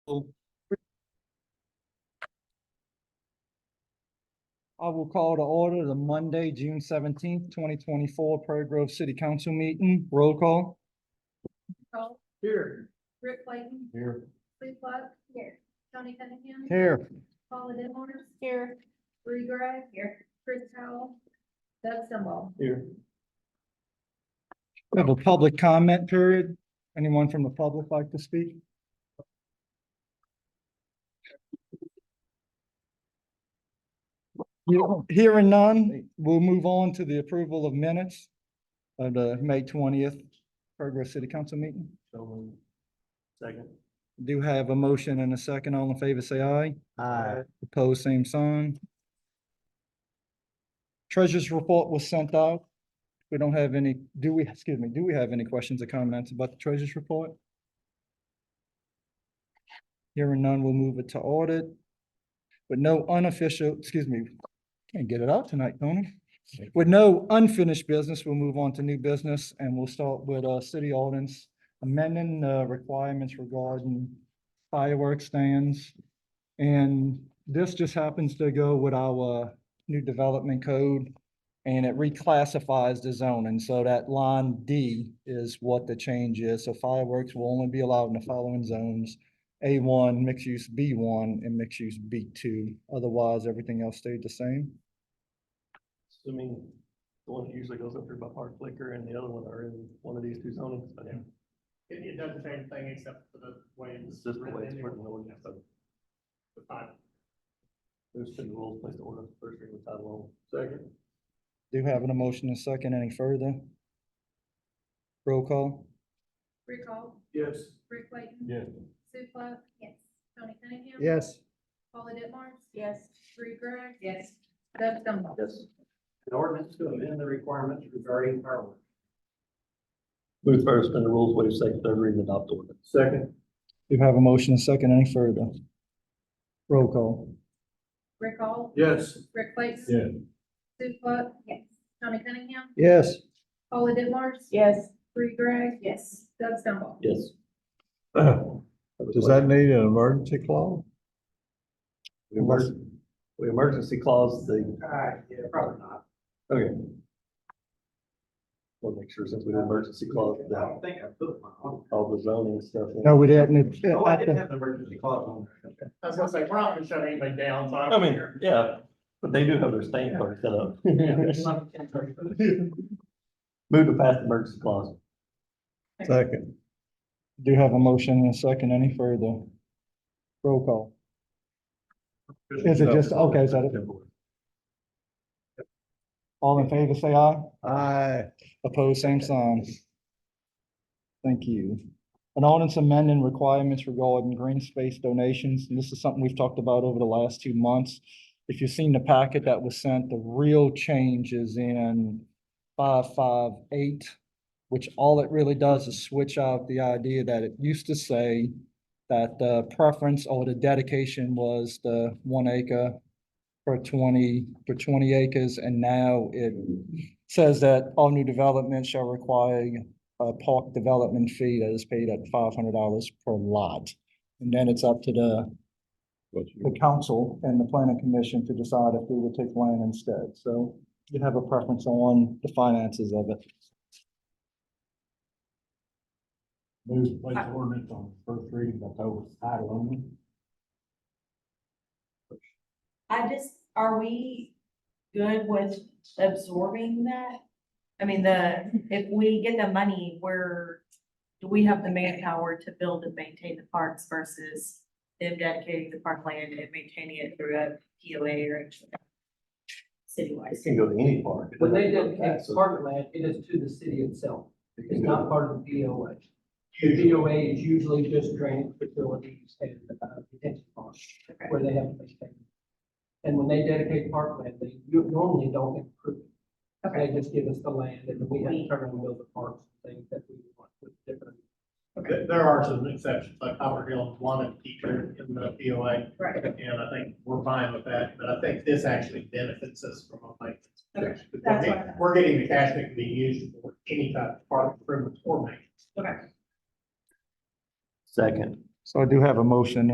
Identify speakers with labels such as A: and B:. A: will. I will call to order the Monday, June seventeenth, twenty twenty-four Prairie Grove City Council meeting. Roll call.
B: Cole,
A: Here.
B: Rick Clayton,
A: Here.
B: Sue Pluck. Here. Tony Cunningham.
A: Here.
B: Paula Denmark. Here. Bree Greg. Here. Chris Howell. Doug Stumble.
A: Here. We have a public comment period. Anyone from the public like to speak? Hearing none, we'll move on to the approval of minutes of the May twentieth Progress City Council meeting.
C: So moved. Second.
A: Do have a motion and a second. All in favor, say aye.
C: Aye.
A: Opposed, same sign. Treasurer's report was sent out. We don't have any, do we, excuse me, do we have any questions or comments about the treasurer's report? Hearing none, we'll move it to audit. With no unofficial, excuse me, can't get it out tonight, Tony. With no unfinished business, we'll move on to new business and we'll start with uh city ordinance amending uh requirements regarding fireworks stands. And this just happens to go with our uh, new development code. And it reclassifies the zone. And so that line D is what the change is. So fireworks will only be allowed in the following zones. A one, mixed use B one, and mixed use B two. Otherwise, everything else stayed the same.
C: Assuming the one that usually goes up here by Park Flicker and the other one are in one of these two zones. but yeah,
D: It, it does the same thing except for the way
C: It's
D: it's.
C: just the way it's
D: written
C: written,
D: in
C: the way it's
D: the-
C: done.
D: the final.
C: There's been rules placed in order, first reading with title only. Second.
A: Do have an emotion and second any further? Roll call?
B: Rick Hall,
C: Yes.
B: Rick Clayton.
C: Yes.
B: Sue Pluck. Yes. Tony Cunningham.
A: Yes.
B: Paula Denmark. Yes. Bree Greg. Yes. Doug Stumble.
C: Yes.
D: An ordinance to amend the requirements regarding fireworks.
C: Move first, suspend the rules, waive second, third reading, adopt order.
D: Second.
A: Do have a motion and second any further? Roll call?
B: Rick Hall,
D: Yes.
B: Rick Clayton.
C: Yeah.
B: Sue Pluck. Yes. Tony Cunningham.
A: Yes.
B: Paula Denmark.
E: Yes.
B: Bree Greg. Yes. Doug Stumble.
C: Yes.
F: Does that need an emergency clause?
C: The emergency, the emergency clause, the,
D: Uh, yeah, probably not.
C: okay. We'll make sure since we have emergency clause,
D: I
C: that
D: don't think I put one on.
C: all the zoning stuff. in.
A: No, we didn't. It-
D: Oh,
A: I
D: I
A: think-
D: didn't have the emergency clause on. there. I was gonna say, we're not gonna shut anything down, so.
C: I mean, yeah, but they do have their staying party set up. Move to pass the emergency clause.
F: Second,
A: Do have a motion and a second. Any further? Roll call. Is it just- okay, is that it? All in favor, say aye.
F: I,
A: Opposed, same sign. Thank you. An ordinance amending requirements regarding green space donations. And this is something we've talked about over the last two months. If you've seen the packet that was sent, the real change is in five, five, eight, which all it really does is switch out the idea that it used to say that the preference or the dedication was the one acre for twenty, for twenty acres, and now it says that all new development shall require a park development fee that is paid at five hundred dollars per lot. And then it's up to the,
F: what
A: the
F: you,
A: council and the planning commission to decide if we would take land instead. So you have a preference on the finances of it.
G: Move place ordinance on first reading by title title only.
E: I just, are we good with absorbing that? I mean, the, if we get the money, we're, do we have the manpower to build and maintain the parks versus them dedicating the parkland and maintaining it through a POA or
C: It
E: citywide?
C: can go to any park.
H: When they did
C: It
H: apartment land, it is to the city itself. It's
C: can
H: not
C: go-
H: part of the BOA. The BOA is usually just drainage facilities and uh, detention ponds
E: Okay.
H: where they have to maintain. And when they dedicate parkland, they u- normally don't improve it. They just give us the land and then we have to turn around and build the parks and things that we want with different.
D: There, there are some exceptions, like Copper Hill wanted to feature in the POA,
E: Right,
D: and I think we're fine with that, but I think this actually benefits us from a maintenance.
E: Okay,
D: perspective. We're
E: that's what I
D: getting-
E: thought.
D: We're getting the cash that can be used for any type of park improvement or maintenance.
E: okay.
C: Second.
A: So I do have a motion